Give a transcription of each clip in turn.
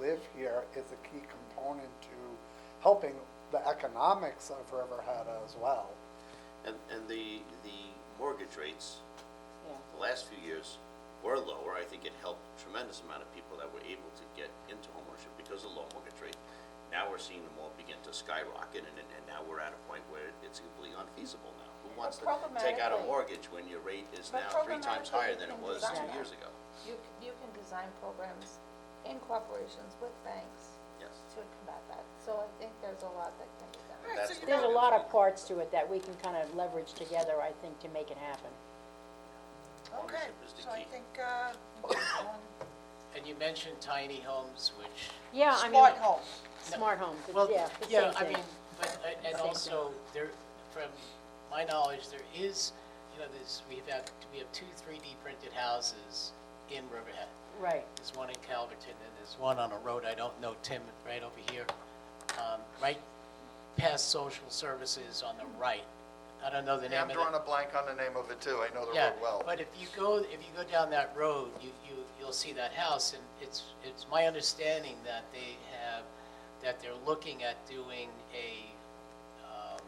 live here is a key component to helping the economics of Riverhead as well. And, and the, the mortgage rates, Yeah. the last few years were lower. I think it helped tremendous amount of people that were able to get into homeownership because of low mortgage rate. Now we're seeing them all begin to skyrocket, and, and and now we're at a point where it's completely unfeasible now. Who wants to take out a Programmatically- mortgage when your rate is But now three times programmatically higher you than it can was design two that. years ago? You, c- you can design programs in corporations with banks Yes. to combat that. So I think there's a lot that can be done. That's There's a lot of parts to it that we can kind of leverage together, I think, to make it happen. Okay, Ownership is the so key. I think, uh, And you mentioned tiny homes, which, Yeah, I mean. smart homes. Smart homes, it's- well, yeah, the yeah, same I thing. mean, but, I- and Same also, there, from my knowledge, there is, you know, there's, we have, we have two 3D printed houses in Riverhead. Right, There's one in Calverton, and there's one on a road, I don't know, Tim, right over here, um, right past social services on the right. I don't know the name Yeah, of I'm it. drawing a blank on the name of it too, I know the Yeah, road well. but if you go, if you go down that road, you, you, you'll see that house, and it's, it's my understanding that they have, that they're looking at doing a, um,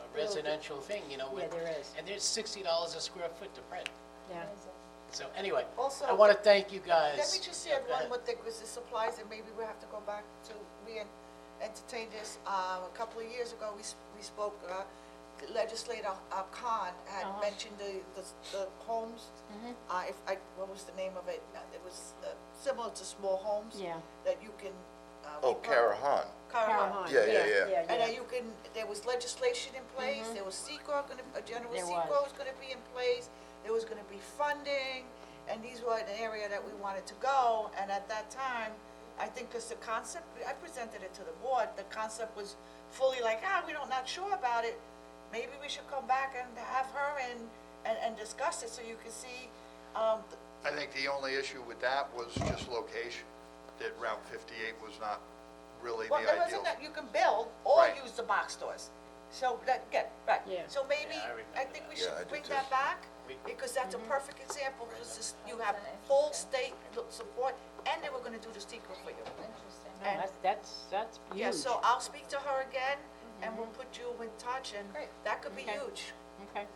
a residential thing, you know, oh, Yeah, with. there is. And there's sixty dollars a square foot to print, yeah. Amazing. so anyway, I Also- wanna thank you guys. Let me just Yeah, add go one ahead. more thing, because it supplies, and maybe we have to go back to, we en- entertained this, uh, a couple of years ago, we, s- we spoke, uh, legislator uh, Khan had Uh-huh. Mm-hmm. mentioned the, the- the homes, uh, if, I, what was the name of it? Uh, It was uh, similar to small homes. Yeah. That you can. uh, Oh, repurpose- Kara Han. Karahan. Caroline, Yeah, yeah, yeah. Mm-hmm. And then you can, there was legislation in place, there was secor gonna, a general There secor was. was gonna be in place, there was gonna be funding, and these were an area that we wanted to go, and at that time, I think, cause the concept, I presented it to the board, the concept was fully like, ah, we don't, not sure about it, maybe we should come back and have her and, and, and discuss it, so you can see, um, th- I think the only issue with that was just location, that Route 58 was not really the Well, it ideal. wasn't that you can build or Right. use the box stores. So that, get, right. Yeah. So maybe, Yeah, I I remember think we that. Yeah, I should do bring too. that back, We- because that's a Mm-hmm. perfect example, because this- you have That's full interesting. state lo- support, and they were gonna do the secret for you. Interesting. No, That's, that's, that's huge. Mm-hmm. Yeah, so I'll speak to her again, and we'll put you in touch, and Great. that could be Okay. huge. Okay.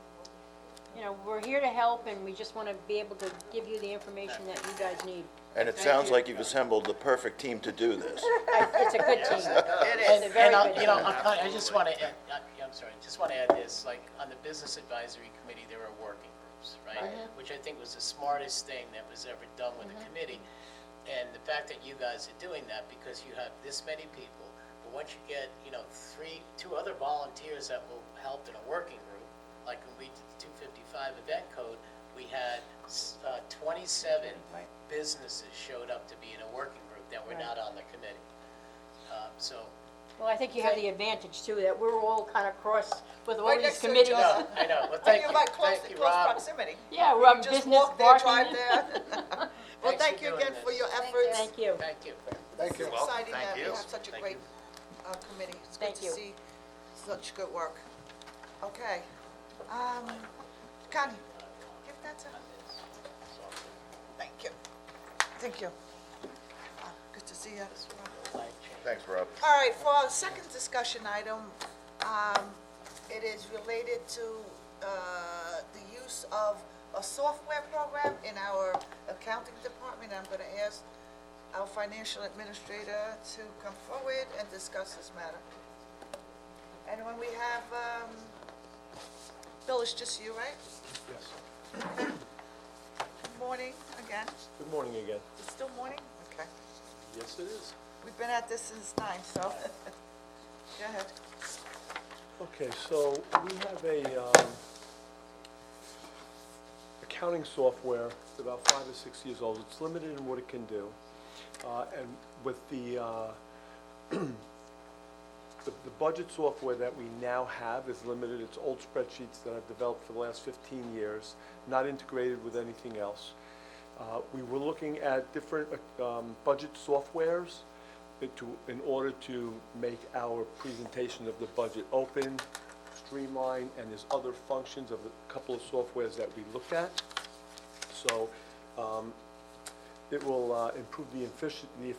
You know, we're here to help, and we just want to be able to give you the information that you guys need. And it sounds like you've assembled the perfect team to do this. It's a good team. It And, is. very and, I- good you know, I'm kind- I just want to, I'm sorry, just want to add this, like, on the Business Advisory Committee, there were working groups, right? Uh-huh. Which I think was the smartest thing that was ever done with Mm-hmm. a committee. And the fact that you guys are doing that, because you have this many people, but once you get, you know, three, two other volunteers that will help in a working group, like when we did the 255 event code, we had s- uh, 27 businesses showed up to be in a working group that were Right. not on the committee. Um, So, Well, I think you have the advantage too, that we're all kind of cross with all Right these next to each committees. other. No, I know, well, And thank you're you, like close, thank in you, close Rob. proximity. Yeah, we're on Just business walk there, drive parking. there. Well, Thanks thank for you doing again for this. your Thank efforts. Thank you. Thank you. Thank you. It's welcome. exciting Thank that we you. have such a Thank great you. uh, committee. It's good Thank to you. see such good work. Okay. Um, Connie, give that to Thank you. Thank you. Uh, Good to see you. Thanks, Rob. All right, for our second discussion item, um, it is related to uh, the use of a software program in our accounting department. I'm going to ask our financial administrator to come forward and discuss this matter. And when we have, um, Bill, it's just you, right? Yes. Good Morning again. Good morning again. It's still morning? Okay. Yes, it is. We've been at this since nine, so go ahead. Okay, so we have a, um, accounting software, it's about five or six years old. It's limited in what it can do. Uh, and with the, uh, the, the budget software that we now have is limited. It's old spreadsheets that I've developed for the last fifteen years, not integrated with anything else. Uh, we were looking at different, um, budget softwares that to, in order to make our presentation of the budget open, streamlined, and there's other functions of a couple of softwares that we looked at. So, um, it will, uh, improve the effici- the